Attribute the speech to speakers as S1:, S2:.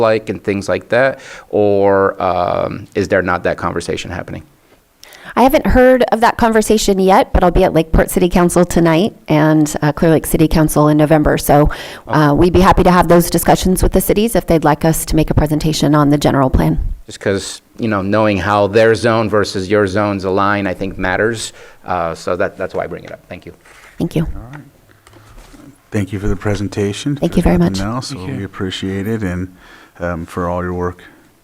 S1: like and things like that? Or um, is there not that conversation happening?
S2: I haven't heard of that conversation yet, but I'll be at Lakeport City Council tonight and uh, Clear Lake City Council in November. So uh, we'd be happy to have those discussions with the cities if they'd like us to make a presentation on the general plan.
S1: Just because, you know, knowing how their zone versus your zones align, I think matters. Uh, So that, that's why I bring it up. Thank you.
S2: Thank you.
S3: Thank you for the presentation.
S2: Thank you very
S3: If there's
S2: much.
S3: nothing else, we appreciate it and um, for all your work